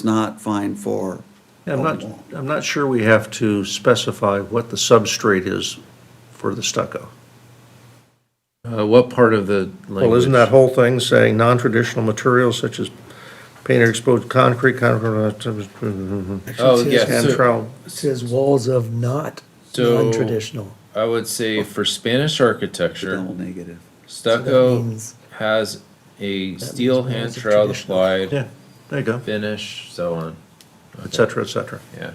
it's not fine for. Yeah, I'm not, open wall. I'm not sure we have to specify what the substrate is for the stucco. Uh, What part of the language? Well, isn't that whole thing saying non-traditional materials such as painted exposed concrete, concrete, Oh, It yeah, says- so- Cantrell? It says walls of not So- non-traditional. I would say for Spanish Double architecture, negative. That stucco means- has a steel means hand it's trowel traditional. applied, Yeah, there you go, finish, so on, et cetera, et cetera. yeah.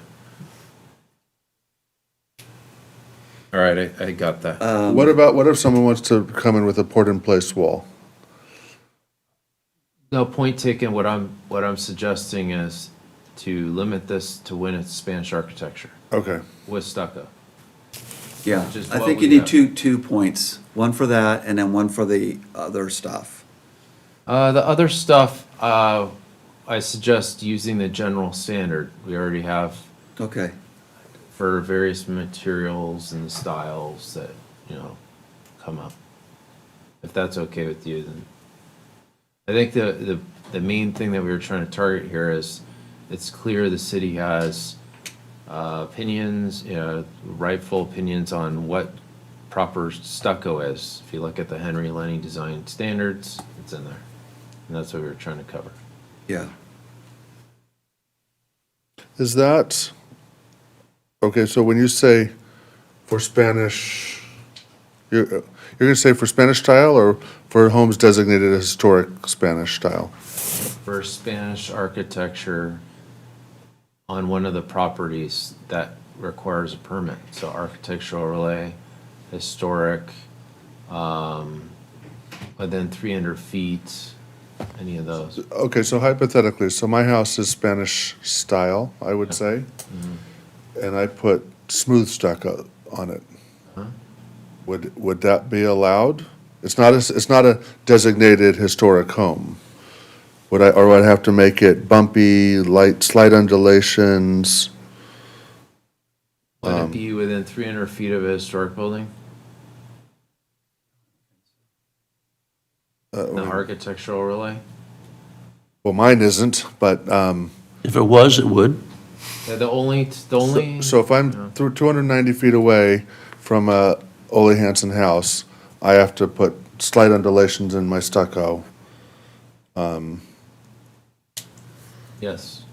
All right, I, I got that. Uh, What about, what if someone wants to come in with a port-in-place wall? No, point taken, what I'm, what I'm suggesting is to limit this to when it's Spanish architecture Okay. with stucco. Yeah, Which is I what think we you need have. two, two points, one for that and then one for the other stuff. Uh, the other stuff, uh, I suggest using the general standard. We already have Okay, for various materials and styles that, you know, come up. If that's okay with you, then. I think the, the, the main thing that we were trying to target here is, it's clear the city has, uh, opinions, you know, rightful opinions on what proper stucco is. If you look at the Henry Lenny Design Standards, it's in there. And that's what we were trying to cover. yeah. Is that, okay, so when you say for Spanish, you're, you're gonna say for Spanish style or for homes designated as historic Spanish style? for Spanish architecture on one of the properties that requires a permit, so architectural overlay, historic, um, but then three hundred feet, any of those. Okay, so hypothetically, so my house is Spanish style, I would say, and I put smooth stucco on it. Would, would that be allowed? It's not a, s- it's not a designated historic home. Would I, or would I have to make it bumpy, light, slight undulations? Um, Would it be within three hundred feet of a historic building? Uh, The architectural overlay? Well, mine isn't, but, um, If it was, it would. Yeah, the only, the only. so if I'm through two hundred and ninety feet away from a Ole Hansen house, I have to put slight undulations in my stucco. Yes.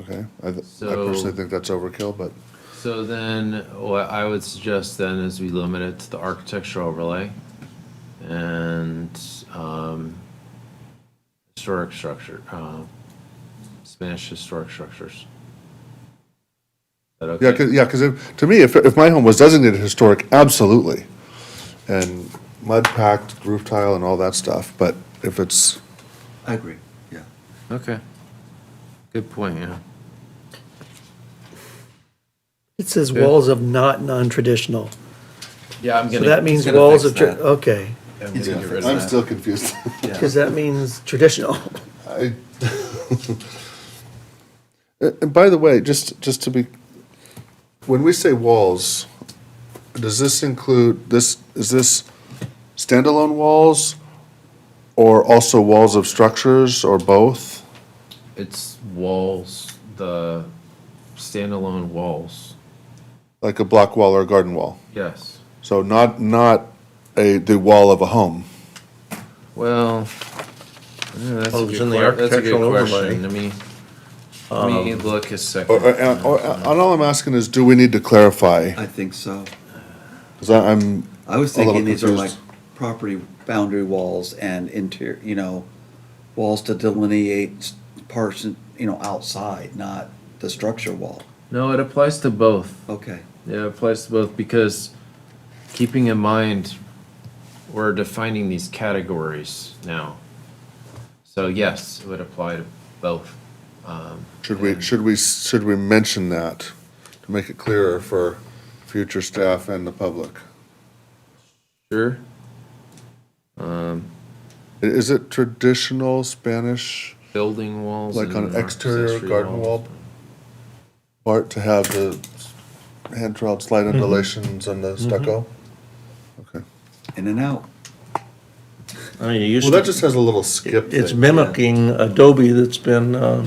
Okay, I, th- I So- personally think that's overkill, but, So then, what I would suggest then is we limit it to the architectural overlay and um, historic structure, uh, Spanish historic structures. Is that yeah, okay? cause, yeah, 'cause if, to me, if, if my home was designated historic, absolutely. And mud packed roof tile and all that stuff, but if it's, I agree. Yeah. Okay. Good point, yeah. It says walls of not non-traditional. Yeah, I'm So gonna. that means gonna walls fix of, tra- that. okay, I'm gonna get rid of I'm that. still confused. because that means traditional. I- And and by the way, just, just to be, when we say walls, does this include, this, is this standalone walls? Or also walls of structures or both? It's walls, the standalone walls, Like a block wall or a garden wall? yes. So not, not a, the wall of a home. Well, yeah, that's Well, a Oh, it was good in the que- that's a good architectural overlay. Um, question. Let me, let me look a Or, or- second. and, or, and all I'm asking is, do we need to clarify? I think so. Because I'm, I was A little thinking these are like confused. property boundary walls and interior, you know, walls to delineate parts, you know, outside, not the structure wall. No, it applies to both. Okay, Yeah, it applies to both because keeping in mind, we're defining these categories now. So yes, it would apply to both. Um, should we, should we, should we mention that to make it clearer for future staff and the public? Sure. I- Is it traditional Spanish Building walls. Like on and an exterior accessory garden walls. wall? part to have the hand troweled slight undulations and the stucco? Okay. in and out. I mean, you used Well, that to, just has a little skip it's thing. mimicking Adobe that's been, uh,